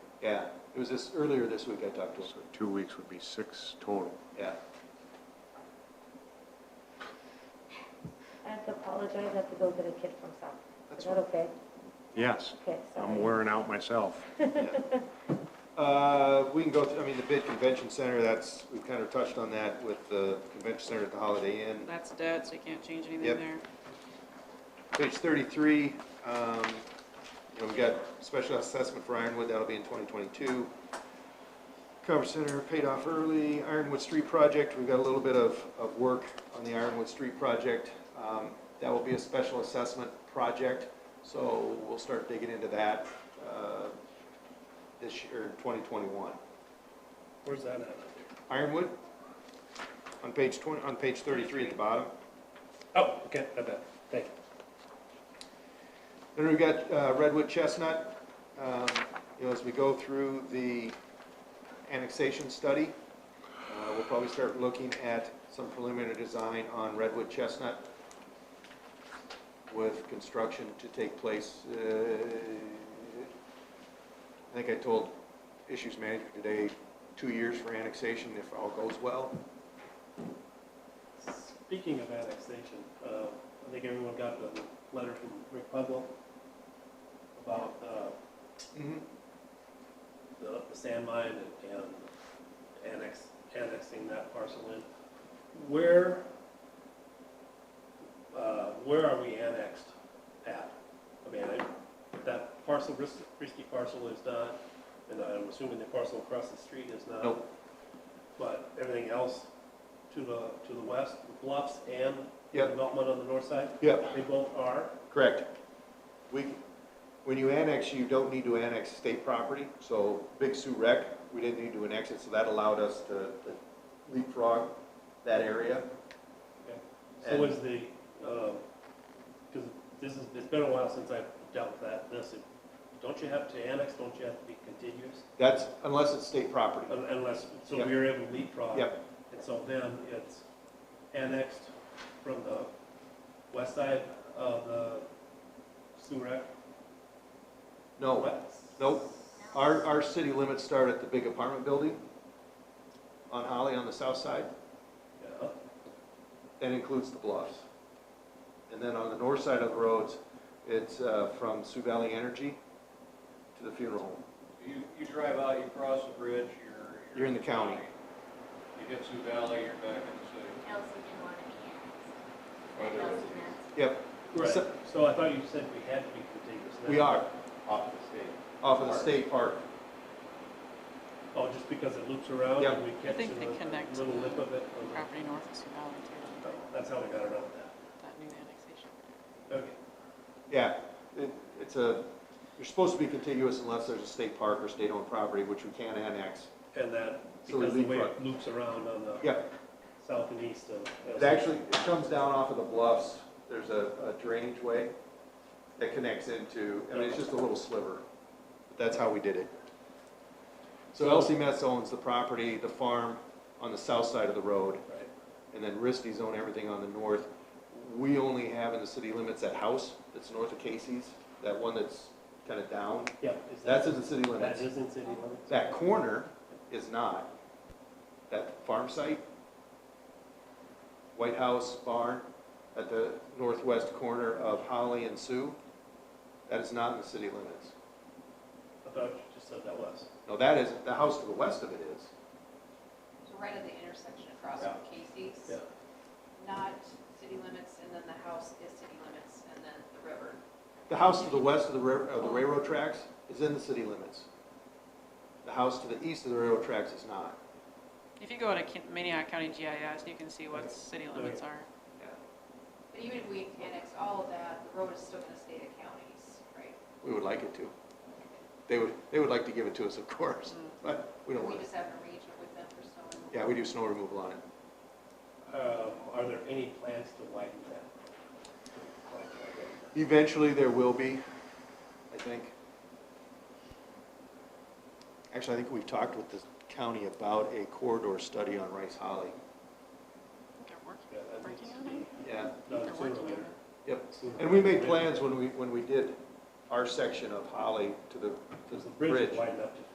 Yeah, it was this, earlier this week I talked to him, So two weeks would be six total. yeah. I have to apologize, I have to go get a kid from South. That's Is that okay? Yes, Okay, sorry. I'm wearing out myself. Uh, we can go through, I mean, the bid convention center, that's, we've kind of touched on that with the convention center at the Holiday Inn. That's dead, so you can't change anything Yep. there. Page thirty-three, um, you know, we've got special assessment for Ironwood, that'll be in twenty twenty-two. Cover Center paid off early, Ironwood Street Project, we've got a little bit of, of work on the Ironwood Street Project. Um, that will be a special assessment project, so we'll start digging into that, uh, this year, twenty twenty-one. Where's that at? Ironwood, on page twenty, on page thirty-three at the bottom. Oh, okay, I bet, thank you. Then we've got uh, Redwood Chestnut, um, you know, as we go through the annexation study, uh, we'll probably start looking at some preliminary design on Redwood Chestnut with construction to take place, uh, I think I told Issues Manager today, two years for annexation if all goes well. Speaking of annexation, uh, I think everyone got the letter from Rick Pudlow about, uh, the the sand mine and, and annex, annexing that parcel in. Where, uh, where are we annexed at? I mean, I, that parcel, Risky Risky parcel is not, and I'm assuming the parcel across the street is not. Nope. But everything else to the, to the west, the bluffs and the Yep. development on the north side, Yep. they both are. Correct. We, when you annex, you don't need to annex state property, so Big Sioux Rec, we didn't need to annex it, so that allowed us to to leapfrog that area. So is the, because this is, it's been a while since I've dealt with that, this, don't you have to annex, don't you have to be contiguous? That's, unless it's state property. Un- Unless, so Yep. we were able to leapfrog. Yep. And so then it's annexed from the west side of the Surek. No, nope. Our, our city limits start at the big apartment building on Holly on the south side. Yeah, That includes the bluffs. And then on the north side of the roads, it's uh, from Sioux Valley Energy to the funeral home. You, you drive out, you cross the bridge, you're. You're in the county. You hit Sioux Valley, you're back in the city. Kelsey didn't want to be annexed. Whether Kelsey meant it's Yep, Right, So- so I thought you said we had to be contiguous. we are, off the state. off of the state park. Oh, just because it loops around Yep. and we I catch think they connect a little lip of it. on the- Property north of Sioux Valley too, That's how we got around that. that new annexation. Okay. Yeah, it, it's a, you're supposed to be contiguous unless there's a state park or state-owned property, which we can't annex. And that, So we because the way leapfrog. it loops around on the Yeah, south and east of. it actually, it comes down off of the bluffs, there's a, a drainage way that connects into, I mean, it's just a little sliver. But That's how we did it. So LC Metz owns the property, the farm on the south side of the road, Right. and then Risty's own everything on the north. We only have in the city limits that house that's north of Casey's, that one that's kinda down, Yeah. is that- that's in the city limits. That is in city limits? That corner is not. That farm site, White House barn at the northwest corner of Holly and Sioux, that is not in the city limits. I thought you just said that was. No, that is, the house to the west of it is. So right at the intersection across from Casey's, Yeah. not city limits, and then the house is city limits, and then the river. The house to the west of the rail- of the railroad tracks is in the city limits. The house to the east of the railroad tracks is not. If you go to Kin- Minnehaha County GIS, you can see what city limits are. But even if we annexed all of that, the road is still gonna stay the counties, right? We would like it to. They would, they would like to give it to us, of course, but we don't We want it. just have an arrangement with them for snow removal. Yeah, we do snow removal on it. Um, Are there any plans to widen that? Eventually, there will be, I think. Actually, I think we've talked with the county about a corridor study on Rice Holly. They're working, Yeah, that working needs to on it? be Yeah. done They're sooner working or on later. it. Yep. Sooner And we made rather than later. plans when we, when we did our section of Holly to the, to Because the the bridge bridge. is wide enough to